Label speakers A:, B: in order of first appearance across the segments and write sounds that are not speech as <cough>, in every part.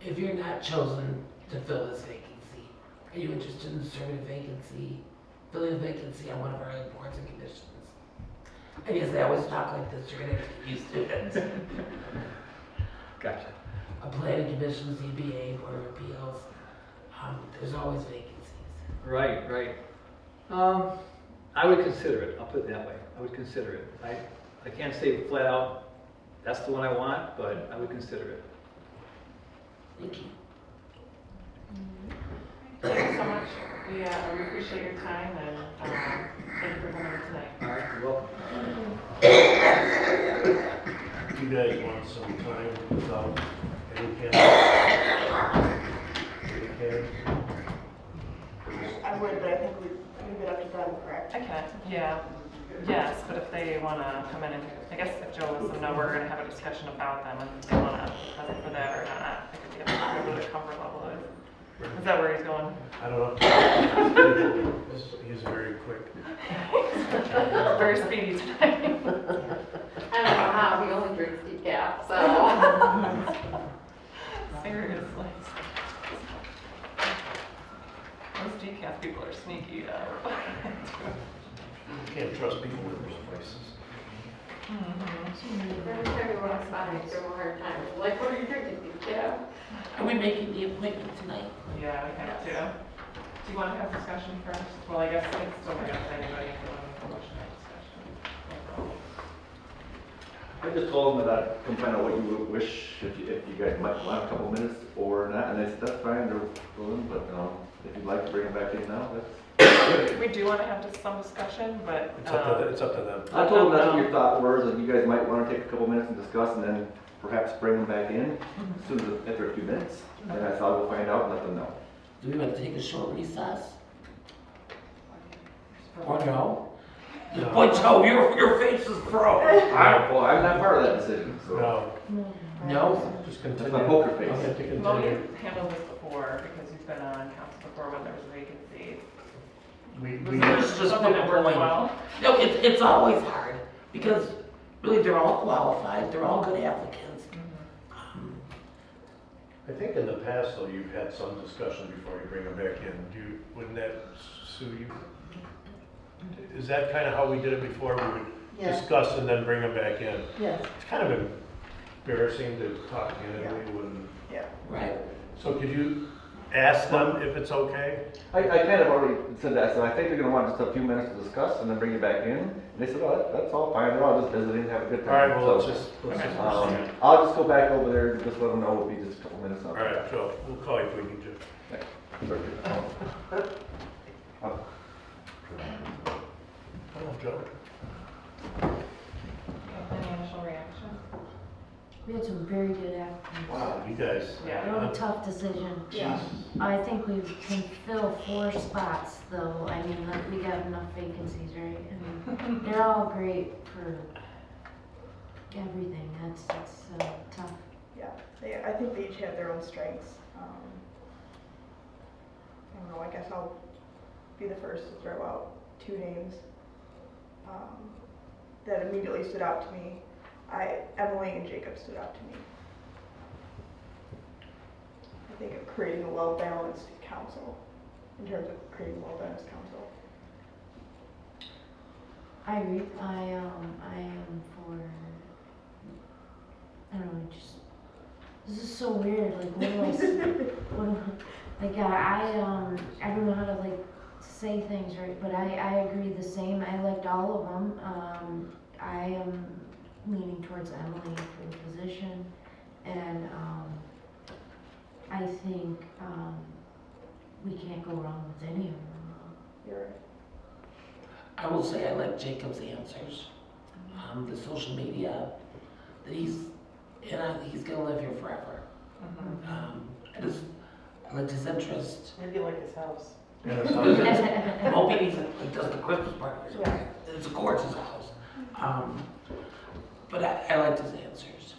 A: If you're not chosen to fill this vacancy, are you interested in serving a vacancy, filling a vacancy on one of our other boards and commissions? I guess I always talk like this, you're gonna have to get used to it.
B: Gotcha.
A: A planning commission, ZBA, Board of Appeals, um, there's always vacancies.
B: Right, right. Um, I would consider it, I'll put it that way. I would consider it. I, I can't say flat out, that's the one I want, but I would consider it.
A: Thank you.
C: Thank you so much. We, uh, we appreciate your time and, um, thank you for coming tonight.
B: All right, you're welcome.
D: You guys want some time without any candidates? Any candidates?
E: I would, but I think we leave it up to them, correct?
C: I can, yeah, yes, but if they want to come in and, I guess if Joe lets them know, we're going to have a discussion about them and if they want to present for that or not. I could get a little bit of comfort level is. Is that where he's going?
D: I don't know. He's very quick.
C: Very speedy tonight.
F: <laughs> I don't know how, he only drinks decaf, so.
C: <laughs> Seriously. Those decaf people are sneaky though.
D: You can't trust people with those places.
F: Every time you want to sign, you give him a hard time. Like, what are you drinking, decaf?
A: Are we making the appointment tonight?
C: Yeah, we have to. Do you want to have discussion first? Well, I guess it's still not up to anybody if they want to have discussion.
G: I just told them that I can find out what you wish, if you, if you guys might want a couple minutes or not, and they said, that's fine, they're willing, but, um, if you'd like to bring them back in now, that's.
C: We do want to have just some discussion, but.
D: It's up
C: um,
D: to, it's up to them.
G: I told them that's what your thought was, and you guys might wanna take a couple minutes and discuss, and then perhaps bring them back in as soon as, after a few minutes, and I thought we'll find out and let them know.
A: Do we want to take a short recess? Or no? Boy, Joe, your, your face is pro.
G: I, well, I'm not part of that decision, so,
D: No,
A: No?
D: just
G: Uh, that's
D: continue.
G: my poker face.
D: I'm gonna continue.
C: Moni's handled this before because he's been on council before when there was a vacancy.
D: We,
C: Was
D: we,
C: there
A: It's just
C: something that worked
A: overwhelming.
C: well?
A: No, it's, it's always hard because really they're all qualified, they're all good applicants. Mm-hmm. Um,
D: I think in the past, though, you've had some discussion before you bring them back in. Do you, wouldn't that sue you? Is that kind of how we did it before? We would
E: Yeah.
D: discuss and then bring them back in?
E: Yes.
D: It's kind of embarrassing to talk candidly when,
A: Right.
D: so could you ask them if it's okay?
G: I, I kind of already said that, so I think they're gonna want just a few minutes to discuss and then bring you back in. And they said, oh, that- that's all fine, they're all just visiting, have a good
D: All
G: time.
D: right, well, let's
G: So,
D: just, let's just.
G: Um,
D: proceed.
G: I'll just go back over there and just let them know it'll be just a couple minutes.
D: All right, so we'll call you if we need to. Oh, Joe.
C: Any initial reaction?
H: We had some very good applicants.
D: Wow, you guys.
C: Yeah.
H: Real tough decision.
E: Yeah.
H: I think we can fill four spots though. I mean, like, we got enough vacancies, right? I mean, they're all great for everything. That's, that's uh, tough.
E: Yeah, they, I think they each have their own strengths. Um, I don't know, I guess I'll be the first to throw out two names um, that immediately stood out to me. I, Emily and Jacob stood out to me. I think of creating a well-balanced council, in terms of creating a well-balanced council.
H: I agree. I, um, I am for, I don't know, just, this is so weird. Like, what
E: <laughs>
H: do I, s- what do I- like, I, I, um, I don't know how to, like, say things right, but I, I agree the same. I liked all of them. Um, I am leaning towards Emily for the position, and, um, I think, um, we can't go wrong with any of them.
E: You're right.
A: I will say I like Jacob's answers. Um, the social media that he's, and I, he's gonna live here forever. Um, I just, I like his interest. Um,
C: Maybe like his house.
D: Yeah, that sounds
E: <laughs>
D: good.
A: I'm hoping he's, he does the Christmas party. or something. It's a gorgeous house. Um, but I, I liked his answers.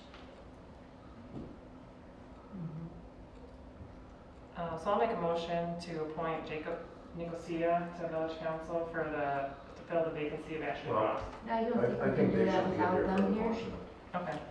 C: Uh, So I'll make a motion to appoint Jacob Nicosia to village council for the, to fill the vacancy of Ashley
D: Well,
C: Ross.
H: I don't think
D: I, I
H: we can
D: think
H: do
D: they
H: that
D: should be here
H: without
D: for the
H: them here.
D: motion.
C: Okay,